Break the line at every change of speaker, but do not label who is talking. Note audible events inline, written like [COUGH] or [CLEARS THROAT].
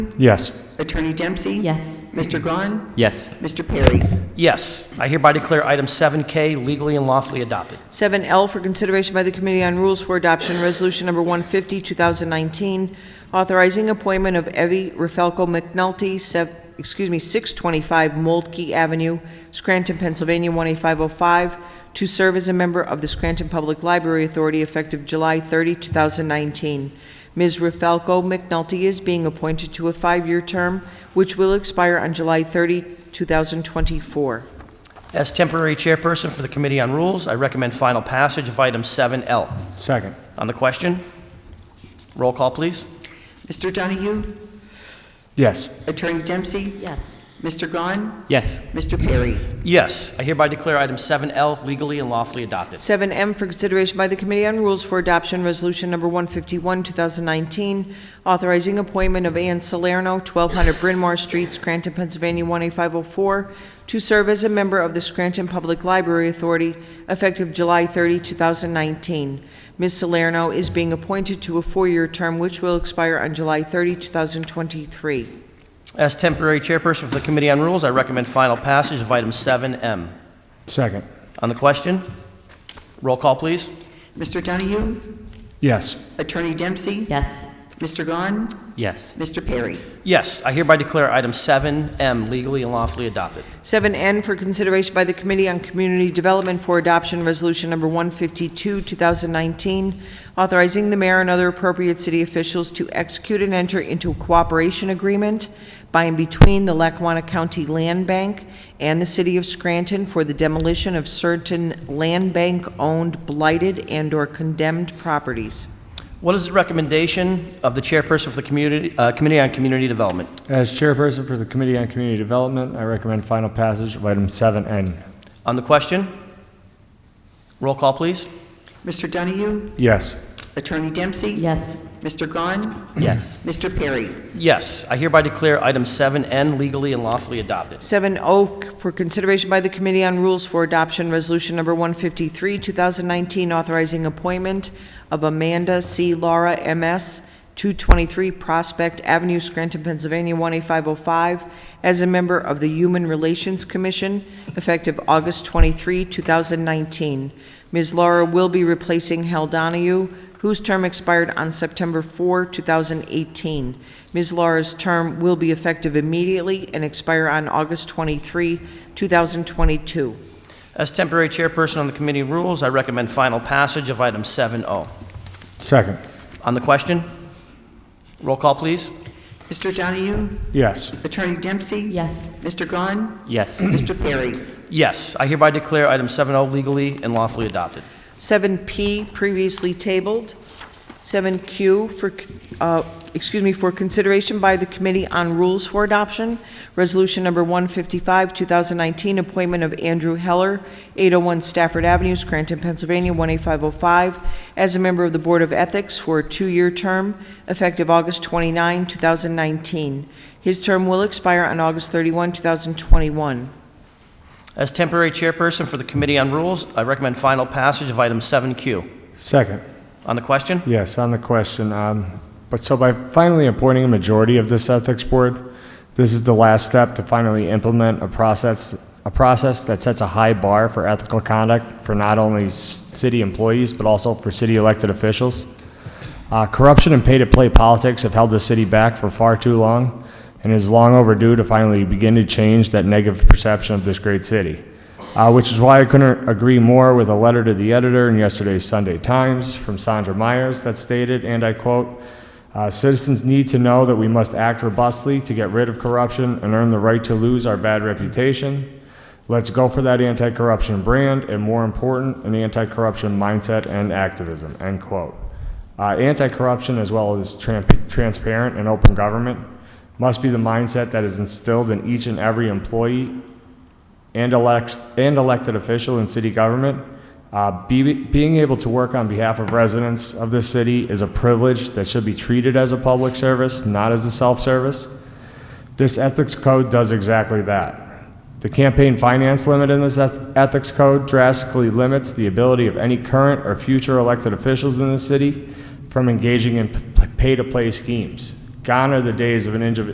Yes.
Attorney Dempsey?
Yes.
Mr. Gahn?
Yes.
Mr. Perry?
Yes. I hereby declare item 7K legally and lawfully adopted.
7L for consideration by the Committee on Rules for Adoption, Resolution Number 150, 2019, authorizing appointment of Evie Rafelko McNulty, sev- excuse me, 625 Moldkey Avenue, Scranton, Pennsylvania, 18505, to serve as a member of the Scranton Public Library Authority effective July 30, 2019. Ms. Rafelko McNulty is being appointed to a five-year term, which will expire on July 30, 2024.
As temporary chairperson for the Committee on Rules, I recommend final passage of item 7L.
Second.
On the question, roll call, please.
Mr. Donahue?
Yes.
Attorney Dempsey?
Yes.
Mr. Gahn?
Yes.
Mr. Perry?
Yes. I hereby declare item 7L legally and lawfully adopted.
7M for consideration by the Committee on Rules for Adoption, Resolution Number 151, 2019, authorizing appointment of Ann Salerno, 1200 Bryn Mawr Street, Scranton, Pennsylvania, 18504, to serve as a member of the Scranton Public Library Authority effective July 30, 2019. Ms. Salerno is being appointed to a four-year term which will expire on July 30, 2023.
As temporary chairperson for the Committee on Rules, I recommend final passage of item 7M.
Second.
On the question, roll call, please.
Mr. Donahue?
Yes.
Attorney Dempsey?
Yes.
Mr. Gahn?
Yes.
Mr. Perry?
Yes. I hereby declare item 7M legally and lawfully adopted.
7N for consideration by the Committee on Community Development for Adoption, Resolution Number 152, 2019, authorizing the mayor and other appropriate city officials to execute and enter into a cooperation agreement by and between the Lackawanna County Land Bank and the City of Scranton for the demolition of certain land bank-owned blighted and/or condemned properties.
What is the recommendation of the chairperson for the community, uh, Committee on Community Development?
As chairperson for the Committee on Community Development, I recommend final passage of item 7N.
On the question, roll call, please.
Mr. Donahue?
Yes.
Attorney Dempsey?
Yes.
Mr. Gahn?
Yes.
Mr. Perry?
Yes, I hereby declare item 7N legally and lawfully adopted.
7O oh for consideration by the Committee on Rules for Adoption, Resolution Number 153, 2019, authorizing appointment of Amanda C. Laura, M.S., 223 Prospect Avenue, Scranton, Pennsylvania, 18505, as a member of the Human Relations Commission, effective August 23, 2019. Ms. Laura will be replacing Hal Donahue, whose term expired on September 4, 2018. Ms. Laura's term will be effective immediately and expire on August 23, 2022.
As temporary chairperson on the committee rules, I recommend final passage of item 7O.
Second.
On the question, roll call, please.
Mr. Donahue?
Yes.
Attorney Dempsey?
Yes.
Mr. Gahn?
Yes.
Mr. Perry?
[CLEARS THROAT] Yes, I hereby declare item 7O legally and lawfully adopted.
7P, previously tabled. 7Q for, uh, excuse me, for consideration by the Committee on Rules for Adoption, Resolution Number 155, 2019, appointment of Andrew Heller, 801 Stafford Avenue, Scranton, Pennsylvania, 18505, as a member of the Board of Ethics for a two-year term, effective August 29, 2019. His term will expire on August 31, 2021.
As temporary chairperson for the committee on rules, I recommend final passage of item 7Q.
Second.
On the question,
Yes, on the question. Um, but so by finally appointing a majority of this ethics board, this is the last step to finally implement a process a process that sets a high bar for ethical conduct for not only s- city employees but also for city elected officials. Uh, corruption and pay-to-play politics have held the city back for far too long, and is long overdue to finally begin to change that negative perception of this great city. Uh, which is why I couldn't agree more with a letter to the editor in yesterday's Sunday Times from Sandra Myers that stated, and I quote, uh, "Citizens need to know that we must act robustly to get rid of corruption and earn the right to lose our bad reputation. Let's go for that anti-corruption brand, and more important, an anti-corruption mindset and activism." End quote. Uh, anti-corruption, as well as tramp- transparent and open government, must be the mindset that is instilled in each and every employee and, elect- and elected official in city government. Uh, be- being able to work on behalf of residents of this city is a privilege that should be treated as a public service, not as a self-service. This ethics code does exactly that. The campaign finance limit in this eth- ethics code drastically limits the ability of any current or future elected officials in the city from engaging in p- pay-to-play schemes. Gone are the days of an indiv-